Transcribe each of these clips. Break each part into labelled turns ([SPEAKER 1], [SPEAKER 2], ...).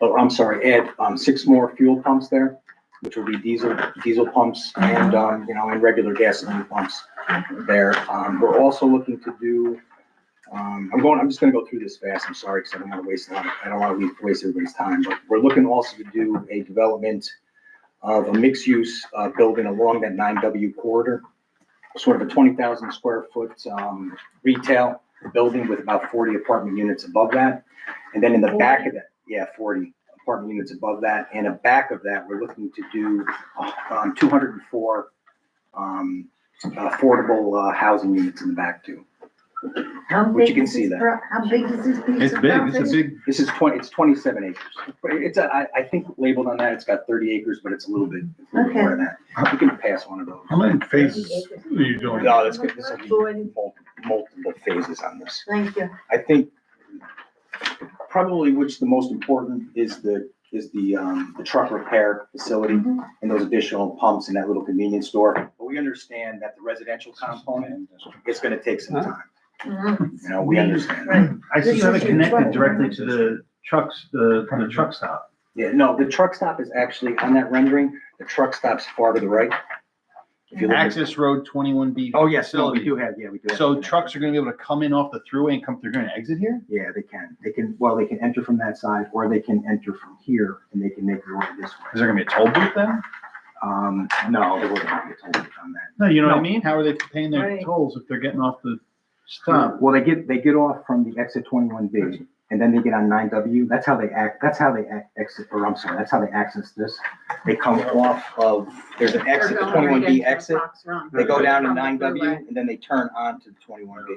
[SPEAKER 1] oh, I'm sorry, add, um, six more fuel pumps there, which will be diesel, diesel pumps and, um, you know, and regular gasoline pumps there. Um, we're also looking to do, um, I'm going, I'm just gonna go through this fast, I'm sorry, because I don't wanna waste a lot, of- I don't wanna leave- waste everybody's time, but we're looking also to do a development of a mixed-use, uh, building along that nine W corridor, sort of a twenty thousand square foot, um, retail building with about forty apartment units above that. And then in the back of that, yeah, forty apartment units above that, and a back of that, we're looking to do, uh, um, two hundred and four, um, affordable, uh, housing units in the back too.
[SPEAKER 2] How
[SPEAKER 1] Which you
[SPEAKER 2] big
[SPEAKER 1] can
[SPEAKER 2] is
[SPEAKER 1] see
[SPEAKER 2] this
[SPEAKER 1] that.
[SPEAKER 2] pro- How big is this piece
[SPEAKER 3] It's
[SPEAKER 2] of
[SPEAKER 3] big,
[SPEAKER 2] property?
[SPEAKER 3] it's a big,
[SPEAKER 1] This is twenty, it's twenty-seven acres. It's, a- I, I think labeled on that, it's got thirty acres, but it's a little bit it's a little
[SPEAKER 2] Okay.
[SPEAKER 1] more than that. You can pass one of those.
[SPEAKER 3] how many phases are you doing?
[SPEAKER 1] No, that's good. This will be mul- multiple phases on this.
[SPEAKER 2] Thank you.
[SPEAKER 1] I think probably which the most important is the, is the, um, the truck repair facility
[SPEAKER 2] Mhm.
[SPEAKER 1] and those additional pumps in that little convenience store. But we understand that the residential component is gonna take some time.
[SPEAKER 2] Mhm.
[SPEAKER 1] You know, we understand. that.
[SPEAKER 2] Right.
[SPEAKER 4] I just have it connected directly to the trucks, the, the truck stop.
[SPEAKER 1] Yeah, no, the truck stop is actually on that rendering. The truck stop's far to the right. If you look at-
[SPEAKER 4] Access Road twenty-one B.
[SPEAKER 1] Oh, yes, no, we do have, yeah, we do. have
[SPEAKER 4] So
[SPEAKER 1] that.
[SPEAKER 4] trucks are gonna be able to come in off the thruway and come through here and exit here?
[SPEAKER 1] Yeah, they can. They can, well, they can enter from that side or they can enter from here and they can make their way this
[SPEAKER 4] Is
[SPEAKER 1] way.
[SPEAKER 4] there gonna be a toll booth then?
[SPEAKER 1] Um, no, there wouldn't be a toll booth on that.
[SPEAKER 4] No, you know what I
[SPEAKER 1] No.
[SPEAKER 4] mean? How are they paying their
[SPEAKER 2] Right.
[SPEAKER 4] tolls if they're getting off the stop?
[SPEAKER 1] Well, they get, they get off from the exit twenty-one B and then they get on nine W. That's how they act, that's how they act, exit, or I'm sorry, that's how they access this. They come off of, there's an exit, the twenty-one B exit. They go down to nine W and then they turn on to twenty-one B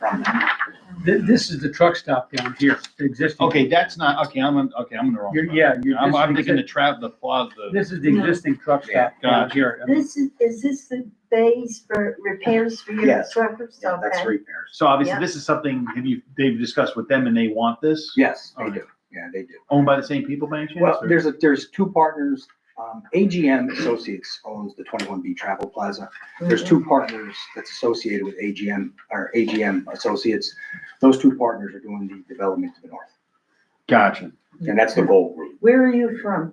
[SPEAKER 1] from that.
[SPEAKER 5] This, this is the truck stop down here, the existing.
[SPEAKER 4] Okay, that's not, okay, I'm, on- okay, I'm in the wrong.
[SPEAKER 5] You're-
[SPEAKER 4] spot.
[SPEAKER 5] yeah, you're
[SPEAKER 4] I'm, I'm
[SPEAKER 5] just-
[SPEAKER 4] thinking the trap, the plaza, the,
[SPEAKER 5] This is the existing truck stop down
[SPEAKER 4] Gotcha.
[SPEAKER 5] here.
[SPEAKER 2] This is, is this the base for repairs for your
[SPEAKER 1] Yes.
[SPEAKER 2] truckers?
[SPEAKER 1] Yeah, that's
[SPEAKER 2] Okay.
[SPEAKER 1] repairs.
[SPEAKER 4] so obviously
[SPEAKER 2] Yeah.
[SPEAKER 4] this is something, have you, they've discussed with them and they want this?
[SPEAKER 1] Yes,
[SPEAKER 4] All
[SPEAKER 1] they
[SPEAKER 4] right.
[SPEAKER 1] do. Yeah, they do.
[SPEAKER 4] Owned by the same people by any chance?
[SPEAKER 1] Well,
[SPEAKER 4] or-
[SPEAKER 1] there's a, there's two partners. Um, AGM Associates owns the twenty-one B Travel Plaza.
[SPEAKER 2] Mm-hmm.
[SPEAKER 1] There's two partners that's associated with AGM, or AGM Associates. Those two partners are doing the development to the north,
[SPEAKER 4] Gotcha.
[SPEAKER 1] and that's the
[SPEAKER 2] Mm-hmm.
[SPEAKER 1] goal group.
[SPEAKER 2] Where are you from?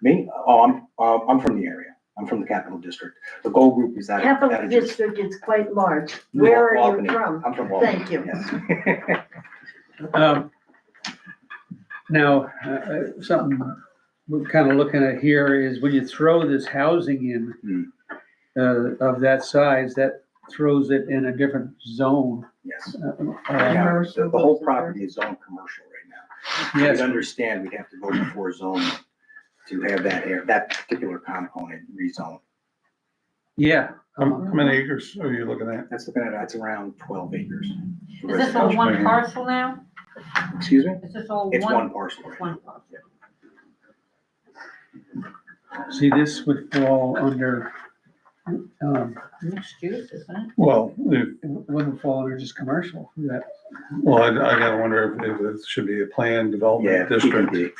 [SPEAKER 1] Me, oh, I'm, um, I'm from the area. I'm from the Capital District. The goal group is out of. out
[SPEAKER 2] Capital
[SPEAKER 1] of-
[SPEAKER 2] District is quite large. Where are you
[SPEAKER 1] Albany.
[SPEAKER 2] from?
[SPEAKER 1] I'm from Albany.
[SPEAKER 2] Thank you.
[SPEAKER 1] Yes.
[SPEAKER 5] Um, Now, uh, uh, something we're kind of looking at here is when you throw this housing in
[SPEAKER 4] Hmm.
[SPEAKER 5] uh, of that size, that throws it in a different zone.
[SPEAKER 1] Yes.
[SPEAKER 5] Uh, uh,
[SPEAKER 1] Yeah, The
[SPEAKER 2] Commercial.
[SPEAKER 1] the whole property is zoned commercial right now.
[SPEAKER 5] Yes,
[SPEAKER 1] We'd understand we'd have to go before zoning to have that air, that particular component rezoned.
[SPEAKER 5] yeah. Um,
[SPEAKER 3] How how many acres are you looking at?
[SPEAKER 1] That's looking at, that's around twelve acres. for
[SPEAKER 6] Is this all
[SPEAKER 1] residential.
[SPEAKER 6] one parcel now?
[SPEAKER 1] Excuse me?
[SPEAKER 6] Is this all
[SPEAKER 1] It's one
[SPEAKER 6] one?
[SPEAKER 1] parcel. right now.
[SPEAKER 6] One parcel.
[SPEAKER 5] See, this would fall under, um,
[SPEAKER 6] Mixed use, isn't it?
[SPEAKER 3] Well, if-
[SPEAKER 5] it wouldn't fall under just commercial, that
[SPEAKER 3] well, I, I gotta wonder if if it should be a planned
[SPEAKER 1] Yeah,
[SPEAKER 3] development district.
[SPEAKER 1] PPD.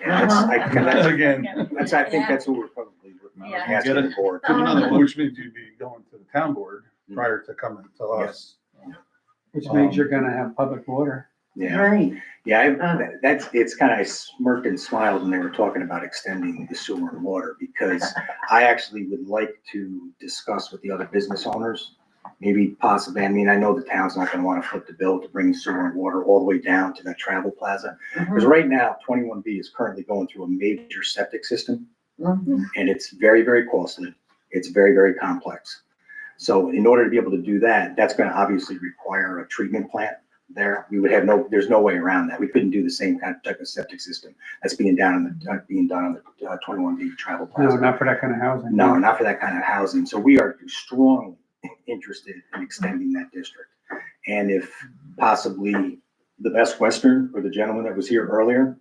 [SPEAKER 1] Yeah, that's, I, that's,
[SPEAKER 3] Again,
[SPEAKER 1] that's, I think that's what we're probably looking
[SPEAKER 6] Uh-huh. Yeah.
[SPEAKER 1] at, asking the board.
[SPEAKER 6] Um,
[SPEAKER 2] Uh-huh.
[SPEAKER 3] another one, which means you'd be going to the town board prior to coming to us.
[SPEAKER 5] which means
[SPEAKER 3] Um,
[SPEAKER 5] you're gonna have public water.
[SPEAKER 1] Yeah,
[SPEAKER 2] Right.
[SPEAKER 1] yeah, I, that's, it's kind of, I smirked and smiled when they were talking about extending the sewer and water because I actually would like to discuss with the other business owners, maybe possibly, I mean, I know the town's not gonna wanna foot the bill to bring sewer and water all the way down to that travel plaza.
[SPEAKER 2] Uh-huh.
[SPEAKER 1] Because right now, twenty-one B is currently going through a major septic system,
[SPEAKER 2] Mhm.
[SPEAKER 1] and it's very, very costly. It's very, very complex. So in order to be able to do that, that's gonna obviously require a treatment plant there. We would have no, there's no way around that. We couldn't do the same kind of type of septic system that's being down on the, uh, being done on the twenty-one B travel plaza.
[SPEAKER 5] No, not for that kind of housing.
[SPEAKER 1] No, not for that kind of housing. So we are strongly interested in extending that district. And if possibly the Best Western or the gentleman that was here earlier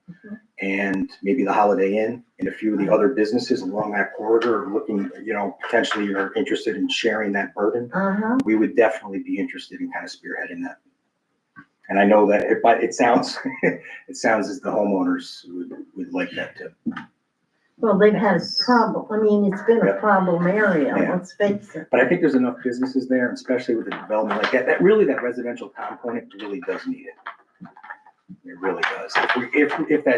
[SPEAKER 1] and maybe the Holiday Inn and a few of the other businesses along that corridor are looking, you know, potentially are interested in sharing that burden,
[SPEAKER 2] Uh-huh.
[SPEAKER 1] we would definitely be interested in kind of spearheading that. And I know that, it- but it sounds, it sounds as the homeowners would, would like that too.
[SPEAKER 2] Well, they've had a problem. I mean, it's been a
[SPEAKER 1] Yeah.
[SPEAKER 2] problem area,
[SPEAKER 1] Yeah.
[SPEAKER 2] let's face it.
[SPEAKER 1] But I think there's enough businesses there, and especially with the development like that, that really, that residential component really does need it. It really does. If we, if, if that